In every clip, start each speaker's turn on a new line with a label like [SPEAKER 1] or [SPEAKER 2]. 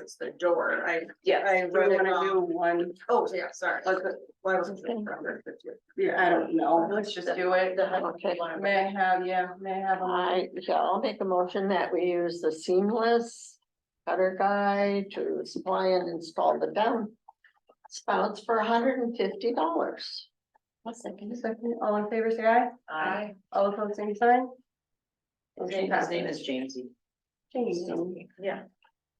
[SPEAKER 1] It's the door, I,
[SPEAKER 2] Yeah,
[SPEAKER 1] I
[SPEAKER 2] do we
[SPEAKER 1] wrote it
[SPEAKER 2] wanna do
[SPEAKER 1] wrong.
[SPEAKER 2] one,
[SPEAKER 1] Oh, yeah, sorry.
[SPEAKER 2] like, uh,
[SPEAKER 1] Why wasn't it from there?
[SPEAKER 2] yeah, I don't know, let's just do it. May I have, yeah, may I have a,
[SPEAKER 3] I, yeah, I'll make a motion that we use the seamless cutter guy to supply and install the down spouts for hundred and fifty dollars.
[SPEAKER 4] One second.
[SPEAKER 2] second, all in favor, say aye,
[SPEAKER 4] I,
[SPEAKER 2] all opposed, same sign?
[SPEAKER 4] his name his name is Jamesy.
[SPEAKER 2] Jamie.
[SPEAKER 4] Yeah.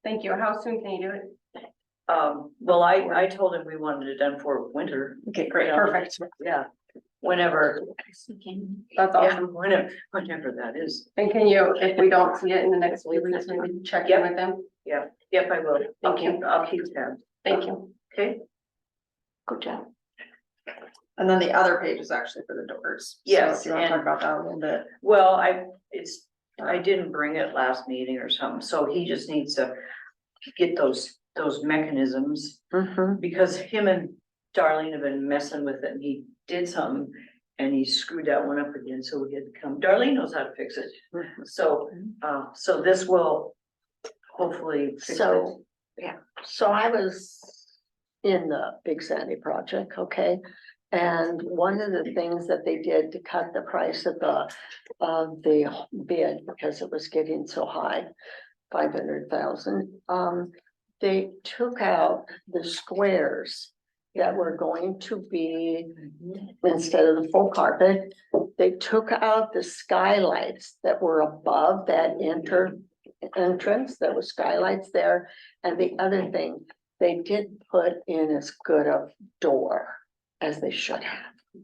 [SPEAKER 2] Thank you, how soon can you do it?
[SPEAKER 4] Um, well, I, I told him we wanted it done for winter,
[SPEAKER 2] Okay, great,
[SPEAKER 4] Yeah.
[SPEAKER 2] perfect,
[SPEAKER 4] yeah, whenever,
[SPEAKER 2] that's
[SPEAKER 4] yeah,
[SPEAKER 2] awesome,
[SPEAKER 4] whenever, whenever that is.
[SPEAKER 2] and can you, if we don't see it in the next week, we just maybe check in with them,
[SPEAKER 4] Yep, I will. I'll
[SPEAKER 2] Thank you.
[SPEAKER 4] keep, I'll keep tabs,
[SPEAKER 2] thank you.
[SPEAKER 4] okay?
[SPEAKER 3] Good job.
[SPEAKER 1] And then the other page is actually for the doors. So
[SPEAKER 4] Yes,
[SPEAKER 1] if You wanna talk
[SPEAKER 4] and-
[SPEAKER 1] about that a little bit?
[SPEAKER 4] Well, I, it's, I didn't bring it last meeting or something, so he just needs to get those, those mechanisms.
[SPEAKER 3] Mm-hmm.
[SPEAKER 4] Because him and Darlene have been messing with it and he did something and he screwed that one up again, so we had to come, Darlene knows how to fix it. So, uh, so this will hopefully fix it.
[SPEAKER 3] So, yeah, so I was in the Big Sandy project, okay? And one of the things that they did to cut the price of the, of the bid, because it was getting so high, five hundred thousand, um, they took out the squares that were going to be instead of the full carpet, they took out the skylights that were above that enter entrance, there were skylights there. And the other thing, they did put in as good a door as they should have.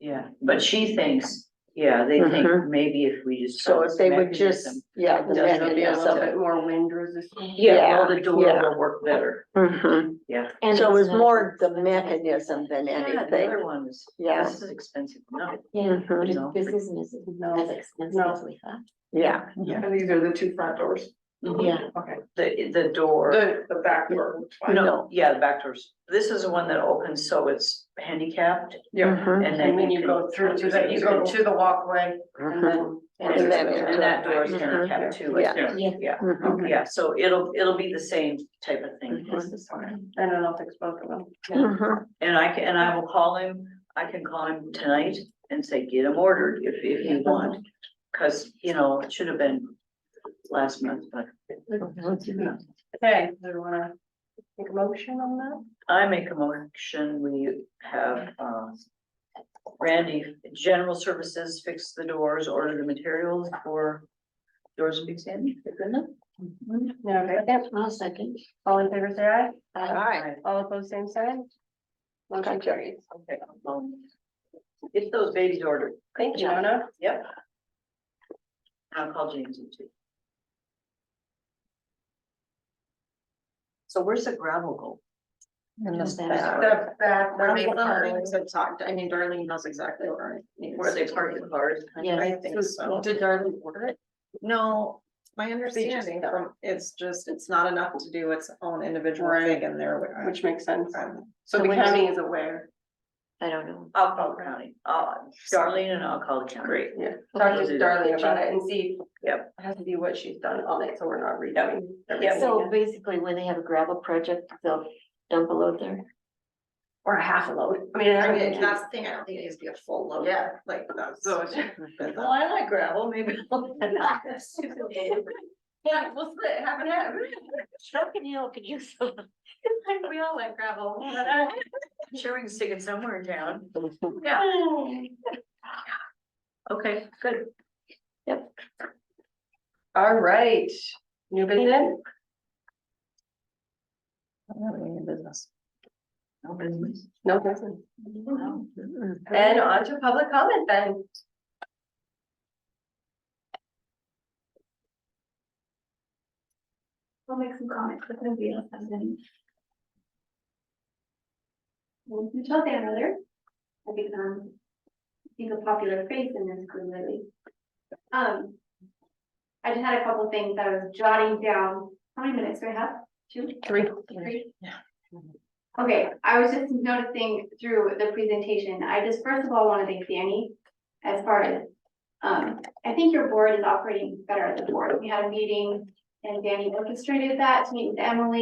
[SPEAKER 4] Yeah, but she thinks, yeah, they think
[SPEAKER 3] Mhm.
[SPEAKER 4] maybe if we just.
[SPEAKER 3] So if they would just,
[SPEAKER 4] mechanism-
[SPEAKER 3] yeah, the
[SPEAKER 4] Just
[SPEAKER 2] It'll be a little
[SPEAKER 3] mechanism.
[SPEAKER 2] bit more wind resistant.
[SPEAKER 4] Yeah, well, the door
[SPEAKER 3] yeah.
[SPEAKER 4] will work better,
[SPEAKER 3] Mhm.
[SPEAKER 4] yeah.
[SPEAKER 3] And so it was more the mechanism than
[SPEAKER 4] Yeah, the
[SPEAKER 3] anything.
[SPEAKER 4] other one is,
[SPEAKER 3] Yeah.
[SPEAKER 4] this is expensive, no,
[SPEAKER 3] Yeah.
[SPEAKER 4] you know.
[SPEAKER 5] This isn't as, as
[SPEAKER 2] No,
[SPEAKER 5] expensive as we thought.
[SPEAKER 3] Yeah,
[SPEAKER 1] Yeah. And these are the two front doors,
[SPEAKER 3] yeah,
[SPEAKER 1] okay,
[SPEAKER 4] Mm-hmm. The, the door,
[SPEAKER 1] the, the back door.
[SPEAKER 4] no, yeah, the back doors, this is the one that opens, so it's handicapped,
[SPEAKER 1] Yeah.
[SPEAKER 3] mhm,
[SPEAKER 4] and
[SPEAKER 2] Mm-hmm. and
[SPEAKER 4] then
[SPEAKER 2] when you go through to the, you go to the walkway,
[SPEAKER 3] mhm,
[SPEAKER 2] and then.
[SPEAKER 3] And then it-
[SPEAKER 4] And that door is handicapped too, I
[SPEAKER 3] Yeah.
[SPEAKER 4] think.
[SPEAKER 5] Yeah.
[SPEAKER 4] yeah,
[SPEAKER 3] mhm.
[SPEAKER 4] yeah, so it'll, it'll be the same type of thing as this one.
[SPEAKER 2] I don't know if it's both of them.
[SPEAKER 3] Mhm.
[SPEAKER 4] And I can, and I will call him, I can call him tonight and say, get him ordered if, if you want. Cause, you know, it should have been last month, but Mm-hmm.
[SPEAKER 2] Okay, do we wanna make a motion on that?
[SPEAKER 4] I make a motion, we have, uh. Randy, general services, fix the doors, order the materials for doors and big sandy, isn't it?
[SPEAKER 2] No, okay,
[SPEAKER 5] I'll second.
[SPEAKER 2] all in favor, say aye,
[SPEAKER 3] All right,
[SPEAKER 2] all opposed, same sign. Motion
[SPEAKER 3] Gotcha.
[SPEAKER 2] carries.
[SPEAKER 4] Okay. well, Get those babies ordered,
[SPEAKER 2] Thank you, Donna.
[SPEAKER 4] yep. I'll call James in too. So where's the gravel go?
[SPEAKER 1] And the
[SPEAKER 5] Just that.
[SPEAKER 1] back.
[SPEAKER 2] The back-
[SPEAKER 1] Where they
[SPEAKER 2] the
[SPEAKER 1] park,
[SPEAKER 2] park.
[SPEAKER 1] so talk, I mean, Darlene knows exactly where. it needs
[SPEAKER 4] Where they
[SPEAKER 1] to
[SPEAKER 4] park
[SPEAKER 1] be.
[SPEAKER 4] the cars?
[SPEAKER 5] Yeah.
[SPEAKER 1] I think so. Did Darlene order it? No, my understanding
[SPEAKER 2] don't.
[SPEAKER 1] from, it's just, it's not enough to do its own individual
[SPEAKER 2] Right.
[SPEAKER 1] thing in there.
[SPEAKER 2] Which makes sense.
[SPEAKER 1] Um,
[SPEAKER 2] So the county is aware.
[SPEAKER 5] I don't know.
[SPEAKER 4] I'll call the county, uh, Darlene and I'll call the county. Great.
[SPEAKER 2] Talk to
[SPEAKER 4] Okay.
[SPEAKER 2] Darlene about it and see.
[SPEAKER 4] Yep.
[SPEAKER 2] Has to be what she's done on it, so we're not redoing. everything
[SPEAKER 5] So
[SPEAKER 2] again.
[SPEAKER 5] basically, when they have a gravel project, they'll dump a load there.
[SPEAKER 2] Or a half a load. I mean, I
[SPEAKER 1] I
[SPEAKER 2] don't
[SPEAKER 1] mean,
[SPEAKER 2] think-
[SPEAKER 1] that's the thing, I don't think it needs to be a full load.
[SPEAKER 2] Yeah.
[SPEAKER 1] Like that's.
[SPEAKER 2] So
[SPEAKER 1] but
[SPEAKER 4] Well,
[SPEAKER 1] that-
[SPEAKER 4] I like gravel, maybe. I'll-
[SPEAKER 2] Yeah, we'll split, half and half.
[SPEAKER 5] Shrunken Hill could use some.
[SPEAKER 2] We all like gravel.
[SPEAKER 4] I'm Sure, we can stick it somewhere in town. Yeah, okay, good.
[SPEAKER 2] All right, new business?
[SPEAKER 1] I don't have any business.
[SPEAKER 4] No business.
[SPEAKER 2] No business.
[SPEAKER 4] No.
[SPEAKER 2] And on to public comment then.
[SPEAKER 6] I'll make some comments, but nobody else has any. Well, Michelle Danner, I think, um, I think a popular face in this group lately. Um, I just had a couple things that I was jotting down. How many minutes do I have? Two?
[SPEAKER 2] Three.
[SPEAKER 6] Three?
[SPEAKER 1] Yeah.
[SPEAKER 6] Okay, I was just noticing through the presentation, I just first of all want to thank Danny as far as, um, I think your board is operating better as a board. We had a meeting And Danny orchestrated that to meet with Emily